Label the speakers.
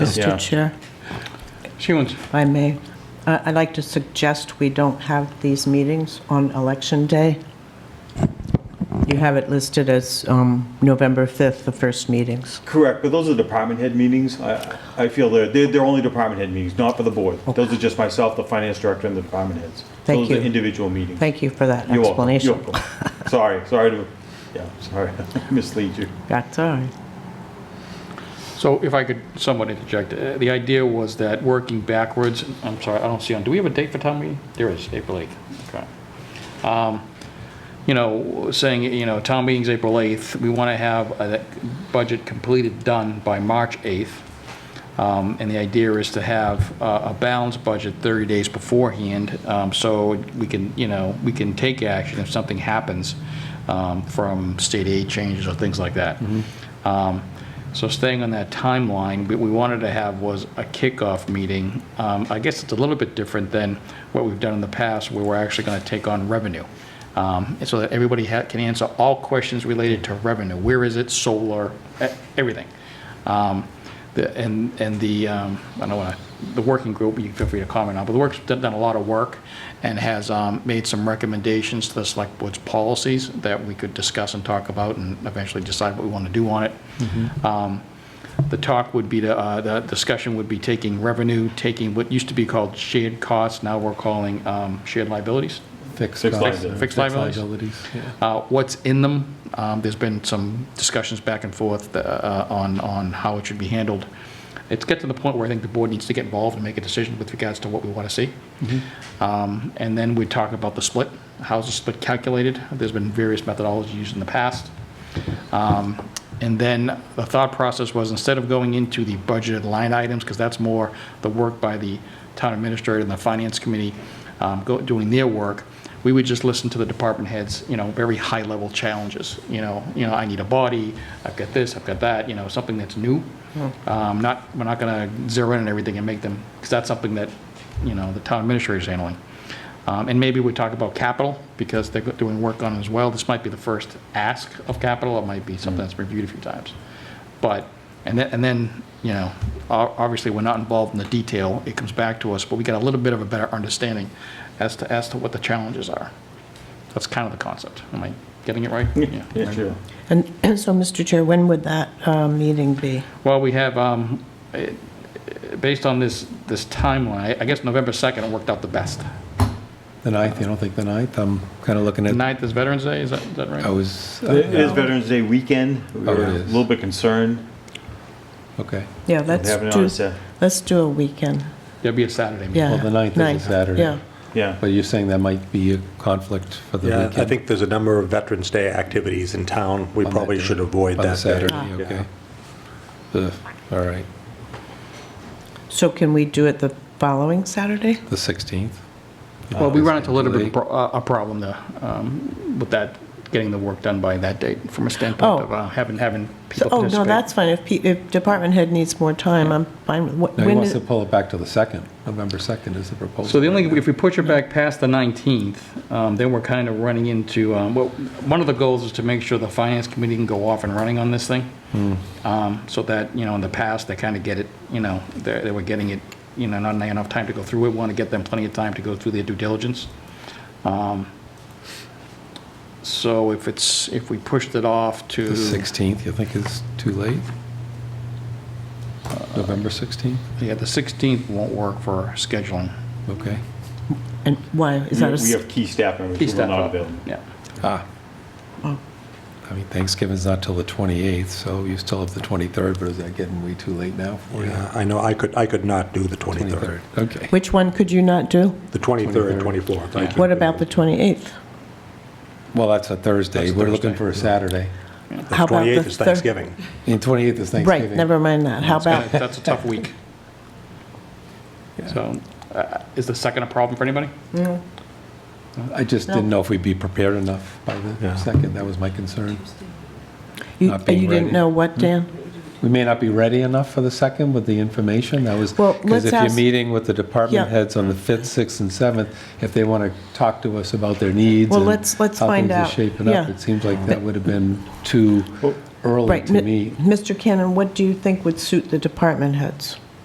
Speaker 1: Mr.
Speaker 2: Yeah.
Speaker 1: Chair,
Speaker 3: She wants,
Speaker 1: if I may, I- I'd like to suggest we don't have these meetings on Election Day. You have it listed as um, November 5th, the first meetings.
Speaker 2: Correct, but those are department head meetings. I, I feel they're, they're, they're only department head meetings, not for the board. Those are just myself, the finance director, and the department heads.
Speaker 1: Thank
Speaker 2: Those
Speaker 1: you.
Speaker 2: are individual meetings.
Speaker 1: Thank you for that
Speaker 2: You're welcome. You're
Speaker 1: explanation.
Speaker 2: welcome. Sorry, sorry to, yeah, sorry, mislead you.
Speaker 1: That's all right.
Speaker 3: so if I could somewhat interject, uh, the idea was that working backwards, I'm sorry, I don't see on, do we have a date for town meeting? There is, April 8th. Okay. Um, You know, saying, you know, town meeting's April 8th, we want to have uh, that budget completed, done by March 8th. Um, And the idea is to have uh, a balanced budget 30 days beforehand, um, so we can, you know, we can take action if something happens um, from state aid changes or things like that. Um, So staying on that timeline, what we wanted to have was a kickoff meeting. Um, I guess it's a little bit different than what we've done in the past, where we're actually going to take on revenue. Um, and So that everybody ha- can answer all questions related to revenue. Where is it, solar, e- everything. Um, the- And, and the, um, I don't want to, the working group, you feel free to comment on, but the work's done done a lot of work and has um, made some recommendations to the select board's policies that we could discuss and talk about and eventually decide what we want to do on it. Um, The talk would be, to, uh, the discussion would be taking revenue, taking what used to be called shared costs, now we're calling um, shared liabilities.
Speaker 4: Fixed
Speaker 2: Fixed
Speaker 4: costs.
Speaker 2: liabilities.
Speaker 3: Fixed liabilities.
Speaker 4: yeah.
Speaker 3: uh, what's in them. Um, There's been some discussions back and forth uh, on, on how it should be handled. It's get to the point where I think the board needs to get involved and make a decision with regards to what we want to see. Um, And then we talk about the split, how's the split calculated? There's been various methodologies used in the past. Um, And then the thought process was, instead of going into the budgeted line items, because that's more the work by the town administrator and the finance committee um, go- doing their work, we would just listen to the department heads, you know, very high-level challenges, you know, you know, I need a body, I've got this, I've got that, you know, something that's new. Um, Not, we're not going to zero in on everything and make them, because that's something that, you know, the town administrator is handling. Um, And maybe we talk about capital, because they're doing work on it as well. This might be the first ask of capital, it might be
Speaker 2: Mm.
Speaker 3: something that's reviewed a few times. But, and then, and then, you know, o- obviously, we're not involved in the detail, it comes back to us, but we get a little bit of a better understanding as to, as to what the challenges are. That's kind of the concept. Am I getting it right?
Speaker 2: Yeah, sure.
Speaker 1: And and so, Mr. Chair, when would that uh, meeting be?
Speaker 3: Well, we have, um, eh, eh, based on this, this timeline, I guess November 2nd worked out the best.
Speaker 4: The 9th, you don't think the 9th? I'm kind of looking
Speaker 3: The
Speaker 4: at,
Speaker 3: 9th is Veterans Day, is that, is that right?
Speaker 4: I
Speaker 2: Oh.
Speaker 4: was, uh,
Speaker 2: It is Veterans Day weekend. We
Speaker 4: Oh, it
Speaker 2: were A
Speaker 4: is.
Speaker 2: little bit concerned.
Speaker 4: okay.
Speaker 1: Yeah,
Speaker 2: with
Speaker 1: let's
Speaker 2: having it on a
Speaker 1: do,
Speaker 2: Sa-
Speaker 1: let's do a weekend.
Speaker 3: That'd be a Saturday meeting.
Speaker 1: Yeah.
Speaker 4: Well, the 9th is a
Speaker 1: ninth,
Speaker 4: Saturday.
Speaker 1: Yeah,
Speaker 2: Yeah,
Speaker 4: But you're saying that might be a conflict for the
Speaker 5: Yeah,
Speaker 4: weekend?
Speaker 5: I think there's a number of Veterans Day activities in town. We
Speaker 4: on that
Speaker 5: probably
Speaker 4: day,
Speaker 5: should avoid that.
Speaker 4: On the
Speaker 5: day.
Speaker 4: Saturday,
Speaker 5: Yeah.
Speaker 4: okay. The, all right,
Speaker 1: so can we do it the following Saturday?
Speaker 4: the 16th?
Speaker 3: Well, we run into a little bit of a
Speaker 4: Late.
Speaker 3: pro- uh, a problem there um, with that, getting the work done by that date from a
Speaker 1: Oh.
Speaker 3: standpoint of uh, having, having
Speaker 1: So-
Speaker 3: people
Speaker 1: Oh,
Speaker 3: participate.
Speaker 1: no, that's fine. If, pe- if department head needs more time, I'm fine with, what-
Speaker 4: No, he
Speaker 1: when,
Speaker 4: wants
Speaker 1: is-
Speaker 4: to pull it back to the 2nd. November 2nd is the proposal.
Speaker 3: So the only, if we push it back past the 19th, um, then we're kind of running into, um, well, one of the goals is to make sure the finance committee can go off and running on this thing. Um, So that, you know, in the past, they kind of get it, you know, they they were getting it, you know, not enough time to go through it. We want to get them plenty of time to go through their due diligence. Um, So if it's, if we pushed it off to.
Speaker 4: The 16th, you think is too late? November 16th?
Speaker 3: Yeah, the 16th won't work for scheduling.
Speaker 4: Okay.
Speaker 1: and why? Is that a,
Speaker 2: we
Speaker 1: s-
Speaker 2: have key staff members who are not available.
Speaker 3: Yeah.
Speaker 4: Ah.
Speaker 1: Oh.
Speaker 4: I mean, Thanksgiving's not till the 28th, so you still have the 23rd, but is that getting way too late now for you?
Speaker 5: Yeah, I know, I could, I could not do the 23rd.
Speaker 4: 23rd, okay.
Speaker 1: which one could you not do?
Speaker 5: The 23rd and 24th. I
Speaker 1: What
Speaker 5: could
Speaker 1: about
Speaker 5: do.
Speaker 1: the 28th?
Speaker 4: Well, that's a Thursday.
Speaker 5: That's a
Speaker 4: We're looking
Speaker 5: Thursday,
Speaker 4: for a Saturday.
Speaker 1: How about the
Speaker 5: 28th is
Speaker 1: thir-
Speaker 5: Thanksgiving.
Speaker 4: And 28th is Thanksgiving.
Speaker 1: Right, never mind that. How about,
Speaker 3: That's a tough week. So uh, is the second a problem for anybody?
Speaker 4: I just didn't know if we'd be prepared enough by the
Speaker 5: Yeah.
Speaker 4: second. That was my concern.
Speaker 1: you
Speaker 4: Not
Speaker 1: you
Speaker 4: being
Speaker 1: didn't
Speaker 4: ready.
Speaker 1: know what, Dan?
Speaker 4: We may not be ready enough for the second with the information. That was,
Speaker 1: Well, let's
Speaker 4: because if you're
Speaker 1: ask-
Speaker 4: meeting with the
Speaker 1: Yeah.
Speaker 4: department heads on the 5th, 6th, and 7th, if they want to talk to us about their needs
Speaker 1: Well,
Speaker 4: and
Speaker 1: let's- let's find
Speaker 4: How
Speaker 1: out.
Speaker 4: things are shaping
Speaker 1: Yeah.
Speaker 4: up, it seems like that would have been too early
Speaker 1: Right,
Speaker 4: to
Speaker 1: Mi-
Speaker 4: meet.
Speaker 1: Mr. Cannon, what do you think would suit the department heads?